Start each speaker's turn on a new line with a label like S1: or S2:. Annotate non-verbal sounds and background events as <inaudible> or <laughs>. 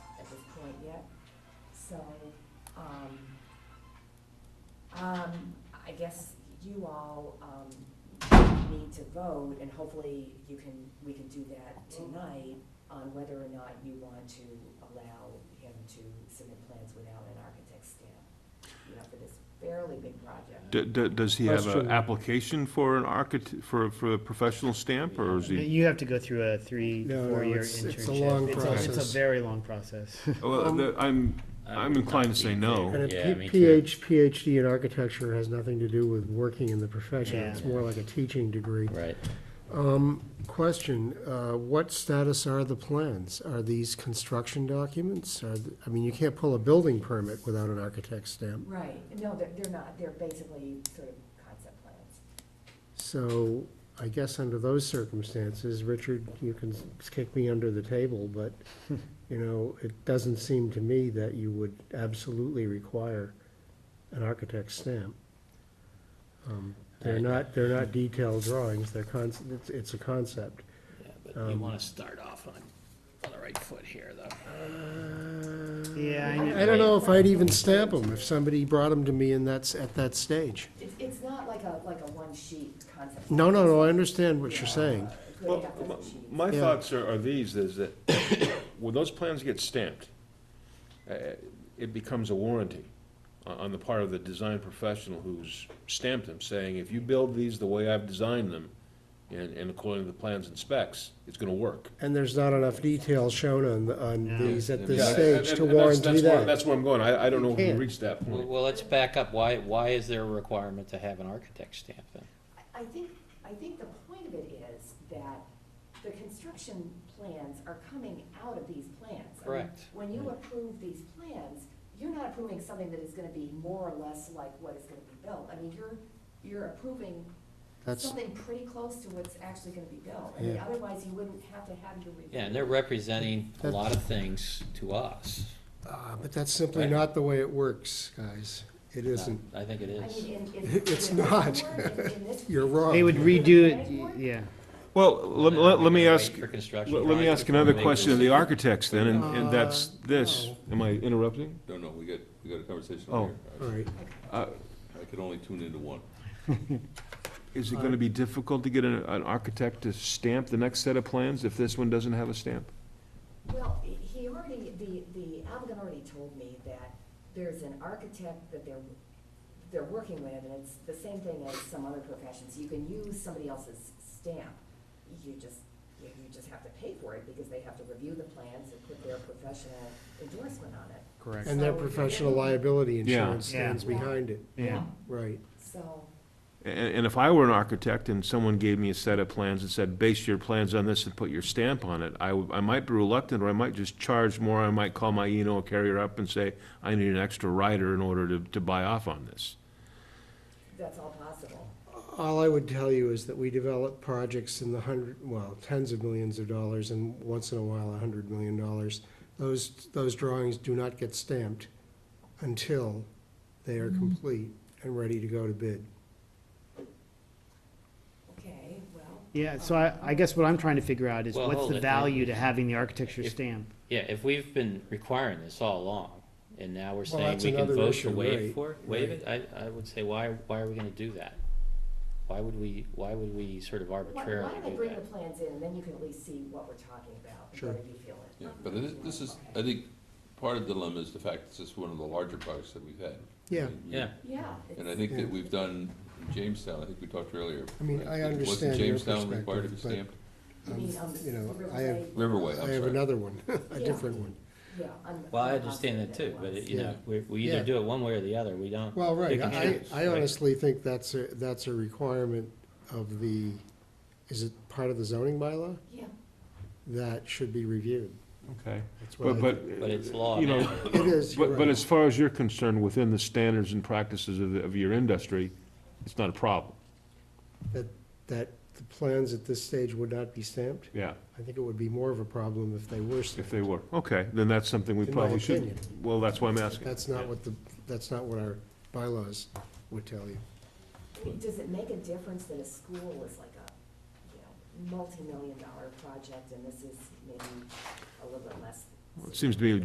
S1: yet, so, um, um, I guess you all, um, need to vote, and hopefully you can, we can do that tonight on whether or not you want to allow him to submit plans without an architect stamp, you know, for this fairly big project.
S2: D- d- Does he have an
S3: Question.
S2: application for an architect, for, for a professional stamp, or is he?
S4: You have to go through a three,
S3: No, no,
S4: four-year
S3: it's-
S4: internship.
S3: it's a long
S4: It's It's
S3: process.
S4: a very
S3: <laughs>
S4: long process.
S2: Well,
S3: um,
S2: the- I'm, I'm inclined to say no.
S3: And a
S5: Yeah,
S3: P-
S5: me too.
S3: PH, PhD in architecture has nothing to do with working in the profession.
S4: Yeah.
S3: It's more like a teaching degree.
S5: Right.
S3: Um, question, uh, what status are the plans? Are these construction documents? Are, th- I mean, you can't pull a building permit without an architect's stamp.
S1: Right, no, they're, they're not, they're basically sort of concept plans.
S3: So I guess under those circumstances, Richard, you can s- kick me under the table, but, you know, it doesn't seem to me that you would absolutely require an architect's stamp. Um, They're
S5: Right.
S3: not, they're not detailed drawings, they're cons, it's, it's a concept.
S6: Yeah, but
S3: Um,
S6: you want to start off on, on the right foot here, though.
S4: Yeah, I know.
S3: I don't know if I'd even stamp them if somebody brought them to me and that's, at that stage.
S1: It's, it's not like a, like a one-sheet concept.
S3: No, no, no, I understand what you're saying.
S1: It's really
S2: Well,
S1: half dozen sheets.
S2: My
S3: Yeah.
S2: thoughts are, are these, is that <coughs> when those plans get stamped, uh, it becomes a warranty on, on the part of the design professional who's stamped them, saying, if you build these the way I've designed them, and, and according to the plans and specs, it's gonna work.
S3: And there's not enough detail shown on, the- on
S4: Yeah.
S3: these at
S2: Yeah,
S3: this
S2: and-
S3: stage to
S2: and that's-
S3: warranty
S2: that's where-
S3: that.
S2: That's where I'm going, I, I don't know if we
S3: can't.
S2: reached that
S5: Well,
S2: point.
S5: well, let's back up. Why, why is there a requirement to have an architect stamp then?
S1: I- I think, I think the point of it is that the construction plans are coming out of these plans. I mean,
S5: Correct. Mm-hmm.
S1: When you approve these plans, you're not approving something that is gonna be more or less like what is gonna be built. I mean, you're, you're approving
S3: That's-
S1: something pretty close to what's actually gonna be built. I mean,
S3: Yeah.
S1: otherwise you wouldn't have to have your review.
S5: Yeah, and they're representing a
S3: That's-
S5: lot of things to us.
S3: Uh, But that's simply
S5: Right.
S3: not the way it works, guys. It isn't.
S5: I think it
S1: I
S5: is.
S1: mean, in, in.
S3: <laughs> It's
S1: in this
S3: not.
S1: board, in- in this-
S3: <laughs> You're wrong.
S4: They would redo it, y- yeah.
S2: Well, let, let, let me
S5: Wait
S2: ask,
S5: for construction
S2: let let me
S5: drawings
S2: ask
S5: before we
S2: another
S5: make
S2: question of the
S5: those-
S2: architects then, and, and that's this.
S3: no.
S2: Am I interrupting?
S7: No, no, we got, we got a conversation
S2: Oh.
S7: over
S3: All
S7: here.
S3: right.
S2: Uh,
S7: I- I could only tune into one.
S2: Is it gonna be difficult to get an, an architect to stamp the next set of plans if this one doesn't have a stamp?
S1: Well, he- he already, the, the applicant already told me that there's an architect that they're, they're working with, and it's the same thing as some other professions, you can use somebody else's stamp. You just, you you just have to pay for it, because they have to review the plans and put their professional endorsement on it.
S4: Correct.
S3: And their professional liability insurance
S4: Yeah.
S3: stands behind it.
S4: Yeah.
S3: Right.
S1: So,
S2: And, and if I were an architect and someone gave me a set of plans and said, base your plans on this and put your stamp on it, I, would- I might be reluctant, or I might just charge more, I might call my Eno carrier up and say, I need an extra rider in order to, to buy off on this.
S1: that's all possible.
S3: All I would tell you is that we develop projects in the hundred, well, tens of millions of dollars and once in a while, a hundred million dollars. Those, those drawings do not get stamped until they
S2: Mm-hmm.
S3: are complete and ready to go to bid.
S1: Okay, well,
S4: Yeah, so I, I guess what I'm trying to figure out is
S5: Well,
S4: what's
S5: hold
S4: the
S5: it.
S4: value to having the architecture
S5: If-
S4: stamp?
S5: Yeah, if we've been requiring this all along, and now we're saying
S3: that's
S5: we can
S3: another
S5: vote
S3: issue,
S5: to waive
S3: right,
S5: for, waive it, I, I would say, why, why are we gonna do that? Why would we, why would we sort of
S1: why, why
S5: arbitrarily
S1: don't they
S5: do
S1: bring the
S5: that?
S1: plans in, and then you can at least see what we're talking about, and
S3: Sure.
S1: whether you feel it.
S7: Yeah, but this, this is, I think, part of the dilemma is the fact this is one of the larger projects that we've had.
S3: Yeah.
S5: Yeah,
S1: Yeah.
S7: And I
S1: it's-
S7: think
S3: Yeah.
S7: that we've done in Jamestown, I think we talked earlier.
S3: I mean,
S7: right?
S3: I understand
S7: Wasn't
S3: your
S7: Jamestown required to be
S3: perspective,
S7: stamped?
S1: You mean, um,
S3: you know,
S1: the
S3: I have-
S1: Riverway-
S7: Riverway,
S3: I
S7: I'm
S3: have
S7: sorry.
S3: another one, <laughs>
S1: Yeah.
S3: a different one.
S1: Yeah, I'm.
S5: well, I
S1: I'm
S5: understand
S1: positive
S5: that too,
S1: it
S5: but,
S1: was.
S5: it- you know, we, we
S3: Yeah.
S5: either do it one way or the other, we don't.
S3: Well, right,
S5: pick and
S3: I,
S5: choose,
S3: I
S5: right?
S3: honestly think that's a, that's a requirement of the, is it part of the zoning bylaw?
S1: Yeah,
S3: That should be reviewed.
S2: Okay.
S3: That's what I
S2: But,
S3: think.
S2: but.
S5: But it's law
S2: You know,
S5: now.
S3: It is, you're
S2: But, but
S3: right.
S2: as far as you're concerned, within the standards and practices of, of your industry, it's not a problem,
S3: That, that the plans at this stage would not be stamped?
S2: yeah,
S3: I think it would be more of a problem if they were
S2: if
S3: stamped.
S2: they were. Okay, then that's something we
S3: In my
S2: probably should,
S3: opinion.
S2: well, that's why I'm asking.
S3: That's not what the, that's not what our bylaws would tell you.
S1: I mean, does it make a difference that a school is like a, you know, multi-million dollar project and this is maybe a little bit less?
S2: It seems to be